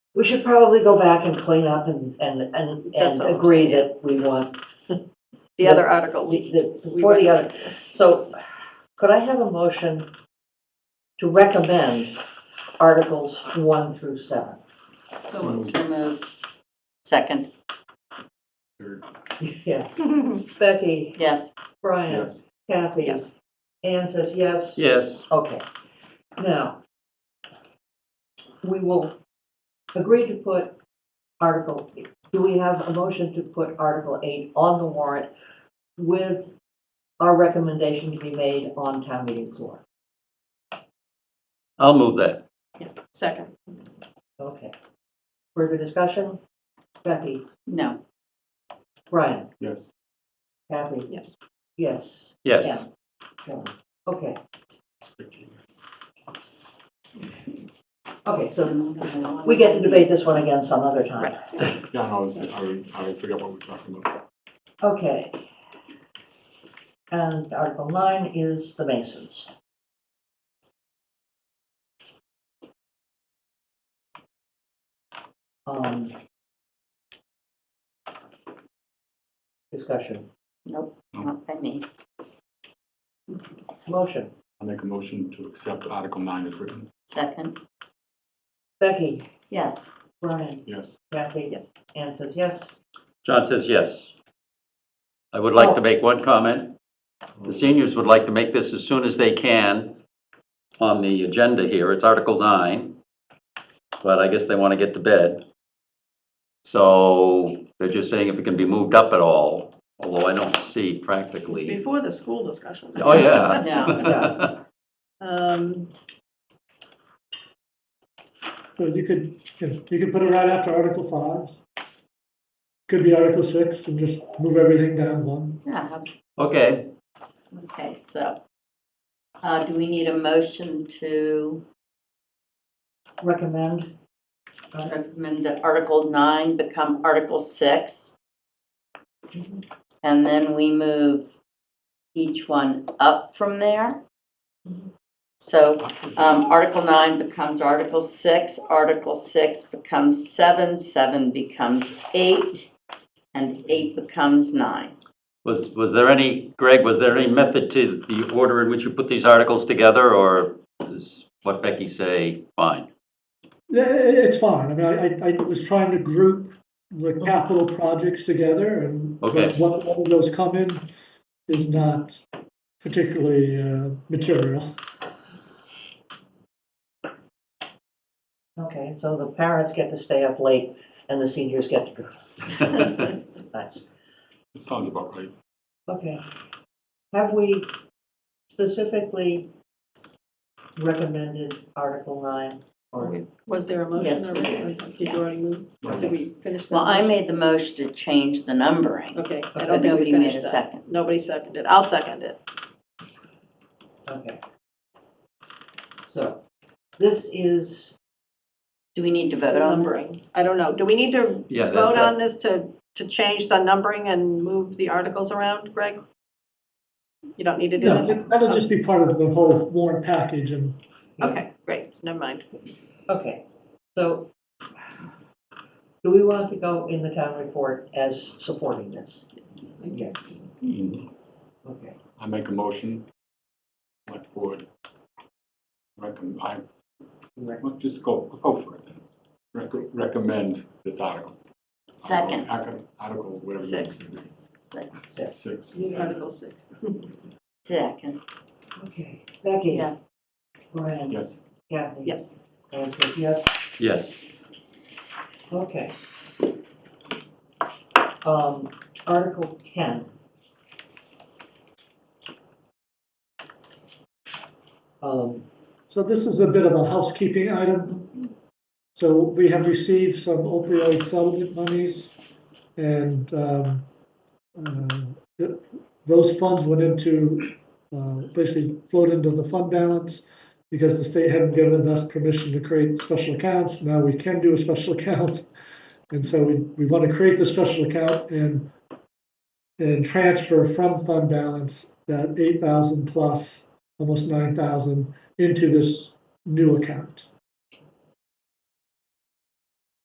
We should probably go back and clean up and, and, and, That's and all I'm agree saying. that we want, The other articles. the- the- for the other. So could I have a motion to recommend Articles 1 through 7? So moved. Second, Yeah. Becky, yes. Brian, Kathy. Yes. Anne says yes. Yes. Okay. Now, we will agree to put Article, do we have a motion to put Article 8 on the warrant with our recommendation to be made on town meeting floor? I'll move that. Second. Okay. Further discussion? Becky, No, Brian, Yes. Kathy, yes. yes. Yes. Anne, Joan. Okay, okay, so we get to debate this one again some other time. Yeah, I was, I, would- I would forget what we're talking about. Okay. And Article 9 is the Masons. Um, Discussion, Nope, not pending. motion. I make a motion to accept Article nine as written. Second, Becky, yes. Brian, Yes. Kathy? Yes. Anne says yes. John says yes. I would like Oh. to make one comment. The seniors would like to make this as soon as they can on the agenda here. It's Article 9, but I guess they want to get to bed. So they're just saying if it can be moved up at all, although I don't see It's practically. before the school discussion. Oh, yeah. No, Yeah. Um, So you could, you could put it right after Article five. Could be Article six and just move everything down one. yeah, Okay, okay, so. Uh, do we need a motion to Recommend, recommend that Article nine become Article six? And then we move each one up from there? So Um, Article nine becomes Article six, Article six becomes seven, seven becomes eight, and eight becomes nine. was, was there any, Greg, was there any method to the order in which you put these articles together? Or is what Becky say, fine? Yeah, i- i- it's fine. I mean, I, I, I was trying to group the capital projects together and Okay. what, what of those come in is not particularly, uh, material. okay, so the parents get to stay up late and the seniors get to go. Nice. Sounds about right. Okay. Have we specifically recommended Article 9? or was there a Yes, motion we did. already? Did you already move? Right, Did we yes. finish that? Well, I motion? made the motion to change the numbering, Okay, I but don't think we nobody made finished a that. second. Nobody seconded. I'll second it. Okay. So this is, Do we need to The vote on it? numbering. I don't know. Do we need to Yeah, that's vote that. on this to, to change the numbering and move the articles around, Greg? You don't need to do No, that? that- that'll just be part of the whole warrant package and Okay, great. Never mind. okay, so do we want to go in the town report as supporting this? Yes, okay. I make a motion, select board. Recommend, I, Right. well, just go, go for it then. Recom- Recommend this article. Second. Article, article, whatever. you want it to be. Six. Six. Article six. Second, Okay, Becky, yes. Brian, Yes. Kathy. Yes. Anne says yes, Yes. okay. Um, Article 10. Um, So this is a bit of a housekeeping item. So we have received some opioid settlement monies, and um, uh, th- those funds went into, uh, basically flowed into the fund balance because the state hadn't given us permission to create special accounts. Now we can do a special account. And so we, we want to create the special account and, and transfer from fund balance that 8,000 plus, almost 9,000 into this new account.